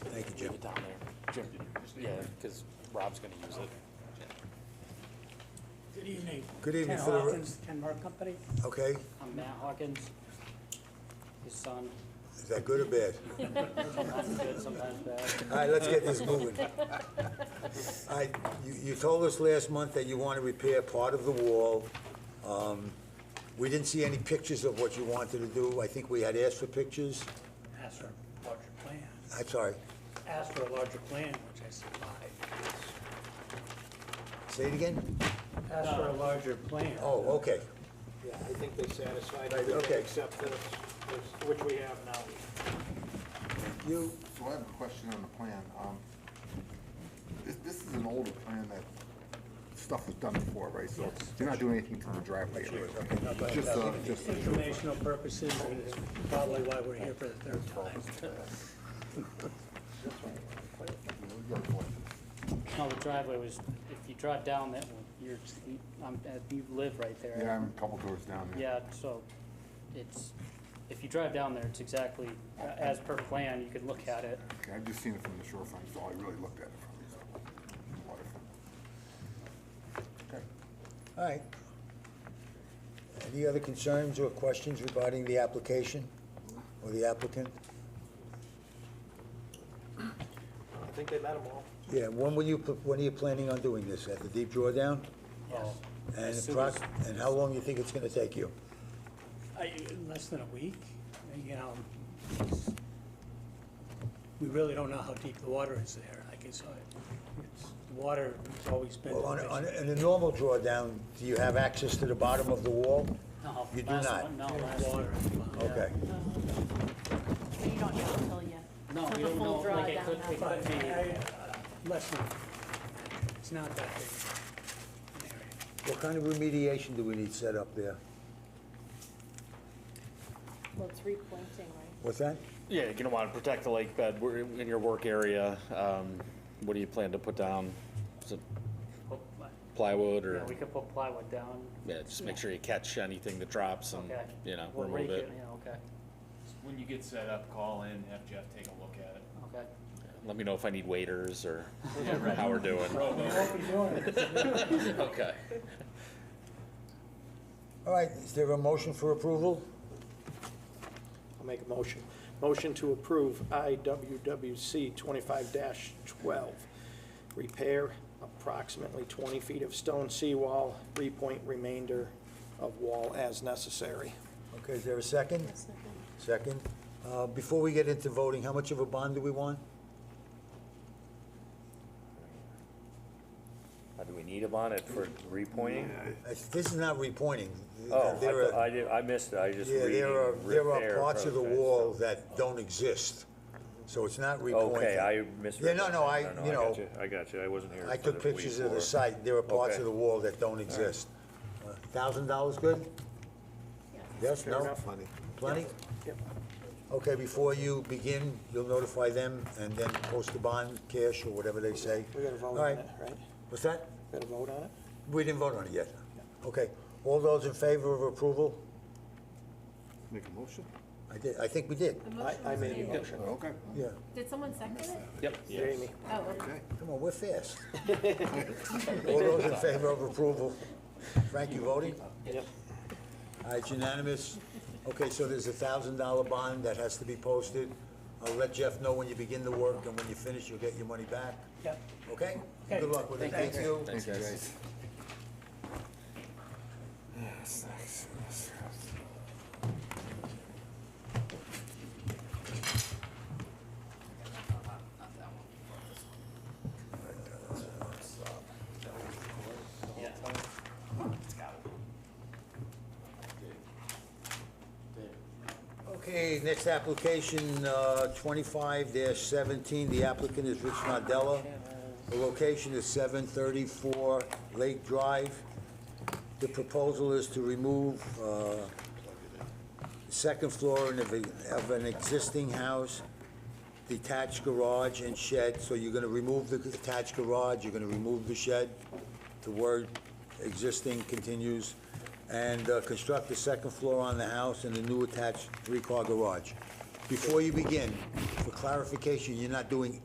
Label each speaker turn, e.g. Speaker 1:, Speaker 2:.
Speaker 1: Jim, yeah, because Rob's gonna use it.
Speaker 2: Good evening.
Speaker 3: Good evening,
Speaker 2: Ken
Speaker 3: for the-
Speaker 2: Hawkins, Ken Mark Company.
Speaker 3: Okay,
Speaker 2: I'm Matt Hawkins, his son.
Speaker 3: is that good or bad?
Speaker 2: Sometimes good, sometimes bad.
Speaker 3: All right, let's get this moving. All right, you, you told us last month that you want to repair part of the wall. Um, We didn't see any pictures of what you wanted to do. I think we had asked for pictures.
Speaker 2: Asked for a larger plan.
Speaker 3: I'm sorry,
Speaker 2: Asked for a larger plan, which I supplied.
Speaker 3: say it again?
Speaker 2: Asked for a larger plan.
Speaker 3: Oh, okay,
Speaker 4: Yeah, I think they satisfied
Speaker 3: Right,
Speaker 4: everything
Speaker 3: okay.
Speaker 4: except this, this- which we have now.
Speaker 3: you,
Speaker 5: So I have a question on the plan. Um, This, this is an older plan that stuff was done before, right? So you're not doing anything to the driveway area. right? Just, uh, just.
Speaker 2: Informational purposes, and it's probably why we're here for the third time. No, the driveway was, if you drive down that one, you're, I'm, you live right there.
Speaker 5: Yeah, I'm a couple doors down there.
Speaker 2: Yeah, so it's, if you drive down there, it's exactly uh, as per plan, you could look at it.
Speaker 5: Okay, I've just seen it from the shorefront, so I really looked at it from the waterfront. Okay.
Speaker 3: all right. Any other concerns or questions regarding the application or the applicant?
Speaker 4: I think they met them all.
Speaker 3: Yeah, when will you, pl- when are you planning on doing this? At the deep drawdown?
Speaker 2: Yes.
Speaker 3: And,
Speaker 2: As soon
Speaker 3: approx-
Speaker 2: as-
Speaker 3: and how long you think it's gonna take you?
Speaker 2: I, in less than a week, you know, it's- we really don't know how deep the water is there, I guess, I- it's, the water has always been.
Speaker 3: Well, on, a- on, a- in a normal drawdown, do you have access to the bottom of the wall?
Speaker 2: No,
Speaker 3: You do
Speaker 2: last
Speaker 3: not.
Speaker 2: one, No, last one.
Speaker 3: Okay.
Speaker 6: But you don't know until you.
Speaker 2: No,
Speaker 6: till
Speaker 2: we
Speaker 6: the
Speaker 2: don't
Speaker 6: full
Speaker 2: know,
Speaker 6: draw
Speaker 2: like, it
Speaker 6: down
Speaker 2: could-
Speaker 6: that
Speaker 2: it
Speaker 6: far.
Speaker 2: could be- uh, Less than, it's not that big. an area.
Speaker 3: What kind of remediation do we need set up there?
Speaker 6: Well, it's replanting, right?
Speaker 3: What's that?
Speaker 7: Yeah, you're gonna want to protect the lake bed We're in in your work area. um, What do you plan to put down? Is it
Speaker 2: Well,
Speaker 7: plywood
Speaker 2: Yeah,
Speaker 7: or,
Speaker 2: we could put plywood down.
Speaker 7: yeah, just make sure you catch anything that drops and,
Speaker 2: Okay.
Speaker 7: you know,
Speaker 2: We'll
Speaker 7: remove
Speaker 2: rake
Speaker 7: it.
Speaker 2: Yeah, okay,
Speaker 8: When you get set up, call in, have Jeff take a look at it.
Speaker 2: okay.
Speaker 7: Let me know if I need waiters or how we're doing. Okay.
Speaker 3: All right, is there a motion for approval?
Speaker 4: I'll make a motion. Motion to approve IWWC twenty-five twelve. Repair approximately twenty feet of stone seawall, repoint remainder of wall as necessary.
Speaker 3: Okay, is there a second?
Speaker 6: That's not good.
Speaker 3: Second. Uh, before we get into voting, how much of a bond do we want?
Speaker 9: Uh, Do we need them on it for repointing?
Speaker 3: That's- This is not repointing.
Speaker 9: Oh, I
Speaker 3: There
Speaker 9: thought-
Speaker 3: are-
Speaker 9: I did, I missed it, I was just
Speaker 3: Yeah,
Speaker 9: reading.
Speaker 3: there are, there are
Speaker 9: repair
Speaker 3: parts of the
Speaker 9: process.
Speaker 3: wall that don't exist, so it's not repointing.
Speaker 9: Okay, I misread.
Speaker 3: Yeah, no,
Speaker 9: that.
Speaker 3: no, I,
Speaker 9: no,
Speaker 3: you know,
Speaker 9: got I got you, I wasn't here.
Speaker 3: I
Speaker 9: for
Speaker 3: took
Speaker 9: the week
Speaker 3: pictures of the
Speaker 9: before.
Speaker 3: site, there are parts
Speaker 9: Okay.
Speaker 3: of the wall that don't exist. Uh, Thousand dollars good? Yes,
Speaker 4: Fair
Speaker 3: no?
Speaker 4: enough.
Speaker 3: Plenty?
Speaker 4: Yep.
Speaker 3: Okay, before you begin, you'll notify them and then post the bond, cash, or whatever they say.
Speaker 4: We gotta vote
Speaker 3: All
Speaker 4: on
Speaker 3: right.
Speaker 4: it, right?
Speaker 3: What's that?
Speaker 4: Gotta vote on it?
Speaker 3: We didn't vote on it yet. Okay, all those in favor of approval?
Speaker 5: Make a motion?
Speaker 3: I did, I think we did,
Speaker 6: The
Speaker 4: I,
Speaker 6: motion
Speaker 4: I
Speaker 6: was
Speaker 4: made a
Speaker 6: made.
Speaker 4: motion.
Speaker 5: Oh, Okay.
Speaker 3: yeah.
Speaker 6: Did someone second it?
Speaker 7: Yep.
Speaker 4: Jamie,
Speaker 6: Oh, okay.
Speaker 3: Come on, we're fast. All those in favor of approval? Frank, you voting?
Speaker 4: Yep.
Speaker 3: All right, unanimous. Okay, so there's a thousand dollar bond that has to be posted. I'll let Jeff know when you begin the work, and when you finish, you'll get your money back,
Speaker 2: Yep.
Speaker 3: okay? Good luck with it, thank you.
Speaker 7: Thanks, guys.
Speaker 3: Okay, next application, uh, twenty-five seventeen, the applicant is Rich Nardella. The location is seven thirty-four Lake Drive. The proposal is to remove, uh, second floor of a- of an existing house, detached garage and shed, so you're gonna remove the detached garage, you're gonna remove the shed, the word existing continues, and uh, construct the second floor on the house and a new attached three-car garage. Before you begin, for clarification, you're not doing